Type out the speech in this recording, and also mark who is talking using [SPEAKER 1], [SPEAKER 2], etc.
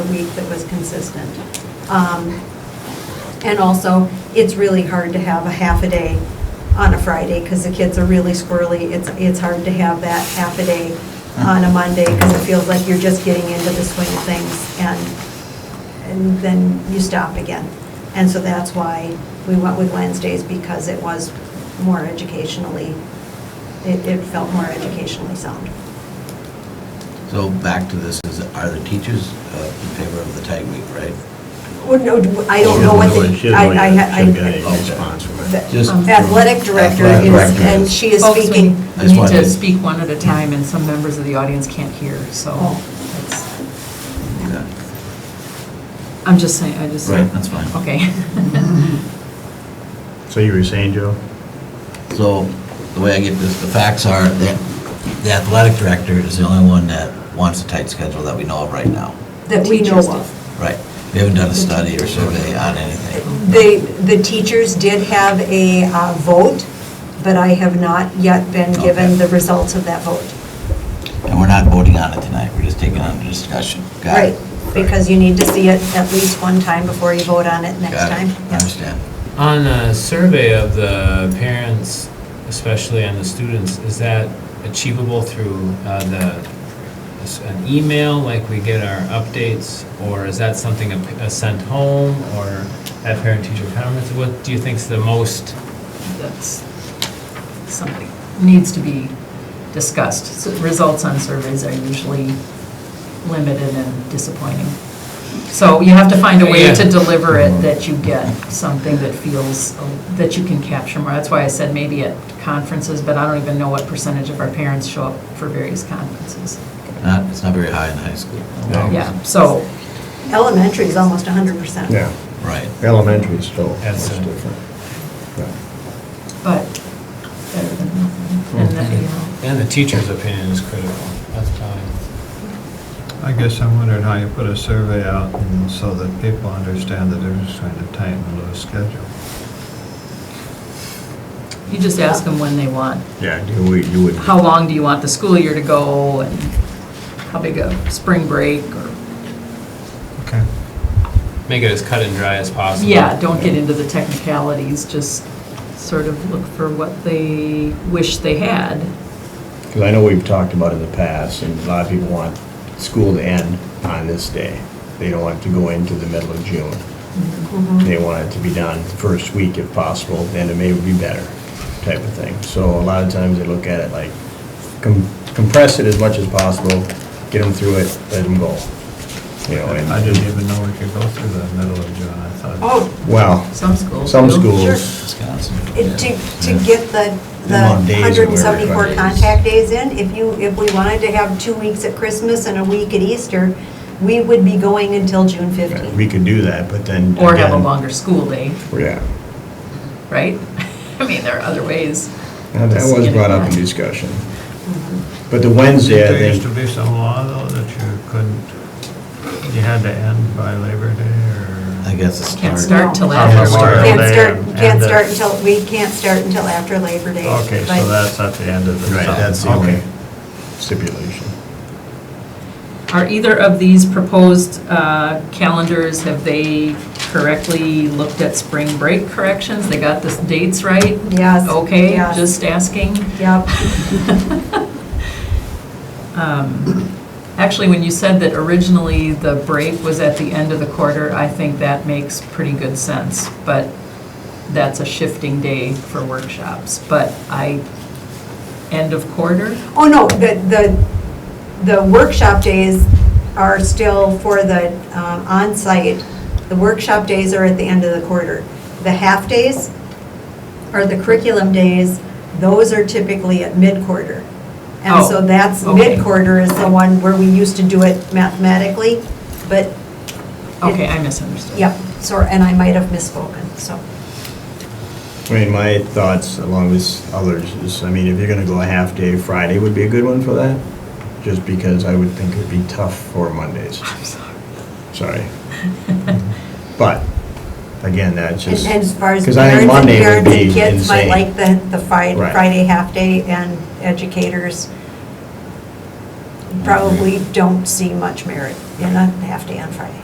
[SPEAKER 1] week that was consistent. Um, And also, it's really hard to have a half a day on a Friday because the kids are really squirrely. It's, it's hard to have that half a day on a Monday because it feels like you're just getting into the swing of things and, and then you stop again. And so that's why we went with Wednesdays because it was more educationally, it, it felt more educationally sound.
[SPEAKER 2] So back to this, is, are the teachers uh, in favor of the tag week, right?
[SPEAKER 1] Well, no, I don't know what
[SPEAKER 3] She
[SPEAKER 1] the,
[SPEAKER 3] doesn't
[SPEAKER 1] I,
[SPEAKER 3] know
[SPEAKER 1] I,
[SPEAKER 3] yet. She
[SPEAKER 1] I-
[SPEAKER 3] doesn't get any response from it.
[SPEAKER 1] the
[SPEAKER 2] Just-
[SPEAKER 1] athletic director
[SPEAKER 2] Athletic
[SPEAKER 1] is,
[SPEAKER 2] director
[SPEAKER 1] and
[SPEAKER 2] is-
[SPEAKER 1] she is
[SPEAKER 4] Folks, we-
[SPEAKER 1] speaking.
[SPEAKER 2] I
[SPEAKER 4] We
[SPEAKER 2] just
[SPEAKER 4] need
[SPEAKER 2] wanted
[SPEAKER 4] to
[SPEAKER 2] to-
[SPEAKER 4] speak one at a time, and some members of the audience can't hear, so
[SPEAKER 1] Oh.
[SPEAKER 4] it's-
[SPEAKER 2] Yeah.
[SPEAKER 4] I'm just saying, I just.
[SPEAKER 2] Right, that's fine.
[SPEAKER 4] Okay.
[SPEAKER 3] So you were saying, Joe?
[SPEAKER 2] So the way I get this, the facts are that the athletic director is the only one that wants a tight schedule that we know of right now.
[SPEAKER 1] That we know
[SPEAKER 4] Teachers
[SPEAKER 1] of.
[SPEAKER 2] Right. We haven't done a study or survey on anything.
[SPEAKER 1] They, the teachers did have a uh, vote, but I have not yet been
[SPEAKER 2] Okay.
[SPEAKER 1] given the results of that vote.
[SPEAKER 2] And we're not voting on it tonight, we're just taking it under discussion. Got it?
[SPEAKER 1] Right, because you need to see it at least one time before you vote on it next
[SPEAKER 2] Got it.
[SPEAKER 1] time.
[SPEAKER 2] I
[SPEAKER 1] Yeah.
[SPEAKER 2] understand.
[SPEAKER 5] On a survey of the parents, especially and the students, is that achievable through uh, the, s- an email, like we get our updates? Or is that something a p- a sent home or at parent-teacher conference? What do you think's the most?
[SPEAKER 4] That's something needs to be discussed. So Results on surveys are usually limited and disappointing. So you have to find a way to
[SPEAKER 5] Yeah.
[SPEAKER 4] deliver it
[SPEAKER 2] Mm-hmm.
[SPEAKER 4] that you get something that feels, uh, that you can capture more. That's why I said maybe at conferences, but I don't even know what percentage of our parents show up for various conferences.
[SPEAKER 2] Not, it's not very high in high school.
[SPEAKER 3] No.
[SPEAKER 4] Yeah, so
[SPEAKER 1] Elementary is almost 100%.
[SPEAKER 3] Yeah,
[SPEAKER 2] Right.
[SPEAKER 3] elementary is still much
[SPEAKER 5] That's a-
[SPEAKER 3] different. Yeah.
[SPEAKER 4] but better than nothing. And then, you know,
[SPEAKER 5] And the teacher's opinion is critical. That's probably,
[SPEAKER 6] I guess I wondered how you put a survey out and so that people understand the difference between a tight and loose schedule.
[SPEAKER 4] you just ask them when they want,
[SPEAKER 3] Yeah, you would, you would.
[SPEAKER 4] how long do you want the school year to go, and how big a spring break, or,
[SPEAKER 6] Okay.
[SPEAKER 5] make it as cut and dry as possible.
[SPEAKER 4] yeah, don't get into the technicalities, just sort of look for what they wish they had.
[SPEAKER 3] Because I know we've talked about in the past, and a lot of people want school to end on this day. They don't want it to go into the middle of June.
[SPEAKER 4] Mm-hmm.
[SPEAKER 3] They want it to be done first week if possible, and it may be better, type of thing. So a lot of times they look at it like com- compress it as much as possible, get them through it, let them go. You know, and.
[SPEAKER 6] I didn't even know we could go through the middle of June, I thought.
[SPEAKER 1] Oh,
[SPEAKER 3] Well,
[SPEAKER 4] Some schools.
[SPEAKER 3] some
[SPEAKER 4] do.
[SPEAKER 3] schools,
[SPEAKER 2] Wisconsin.
[SPEAKER 1] it- to, to get the, the
[SPEAKER 3] The amount of days that we're
[SPEAKER 1] 174
[SPEAKER 3] required.
[SPEAKER 1] contact days in, if you, if we wanted to have two weeks at Christmas and a week at Easter, we would be going until June 15th.
[SPEAKER 3] we could do that, but then.
[SPEAKER 4] Or have a
[SPEAKER 3] again-
[SPEAKER 4] longer school day,
[SPEAKER 3] Yeah.
[SPEAKER 4] right? I mean, there are other ways.
[SPEAKER 3] Now,
[SPEAKER 4] to
[SPEAKER 3] That was
[SPEAKER 4] skin it
[SPEAKER 3] brought up in
[SPEAKER 4] back.
[SPEAKER 3] discussion. But the Wednesday,
[SPEAKER 6] There
[SPEAKER 3] I
[SPEAKER 6] used to
[SPEAKER 3] think,
[SPEAKER 6] be some law though that you couldn't, you had to end by Labor Day
[SPEAKER 2] I
[SPEAKER 6] or?
[SPEAKER 2] guess it's
[SPEAKER 4] Can't
[SPEAKER 2] start.
[SPEAKER 4] start till
[SPEAKER 1] No.
[SPEAKER 4] after.
[SPEAKER 6] Memorial
[SPEAKER 4] spring.
[SPEAKER 1] Can't
[SPEAKER 6] Day
[SPEAKER 1] start,
[SPEAKER 6] and-
[SPEAKER 1] can't
[SPEAKER 6] and the-
[SPEAKER 1] start until, we can't start until after Labor Day.
[SPEAKER 6] Okay,
[SPEAKER 1] but-
[SPEAKER 6] so that's at the end of the.
[SPEAKER 3] right,
[SPEAKER 6] summer.
[SPEAKER 3] that's the only
[SPEAKER 6] Okay.
[SPEAKER 3] stipulation.
[SPEAKER 4] Are either of these proposed uh, calendars, have they correctly looked at spring break corrections? They got the dates right?
[SPEAKER 1] Yes.
[SPEAKER 4] Okay,
[SPEAKER 1] yes,
[SPEAKER 4] just asking.
[SPEAKER 1] Yep.
[SPEAKER 4] Um, Actually, when you said that originally the break was at the end of the quarter, I think that makes pretty good sense. But that's a shifting day for workshops. But I, end of quarter?
[SPEAKER 1] Oh, no, the, the, the workshop days are still for the um, onsite. The workshop days are at the end of the quarter. The half-days are the curriculum days, those are typically at mid-quarter. And
[SPEAKER 4] Oh,
[SPEAKER 1] so that's,
[SPEAKER 4] okay.
[SPEAKER 1] mid-quarter is the one where we used to do it mathematically, but,
[SPEAKER 4] Okay, I misunderstood.
[SPEAKER 1] yep, so, and I might have misspoken, so.
[SPEAKER 3] I mean, my thoughts along with others is, I mean, if you're gonna go a half day, Friday would be a good one for that, just because I would think it'd be tough for Mondays,
[SPEAKER 4] I'm sorry.
[SPEAKER 3] sorry. But, again, that's
[SPEAKER 1] And
[SPEAKER 3] just.
[SPEAKER 1] and as far as
[SPEAKER 3] Because
[SPEAKER 1] parents
[SPEAKER 3] I think
[SPEAKER 1] and
[SPEAKER 3] Monday would
[SPEAKER 1] parents and
[SPEAKER 3] be
[SPEAKER 1] kids might
[SPEAKER 3] insane.
[SPEAKER 1] like the, the Friday,
[SPEAKER 3] Right.
[SPEAKER 1] Friday half-day and educators probably don't see much merit in a half-day on Friday.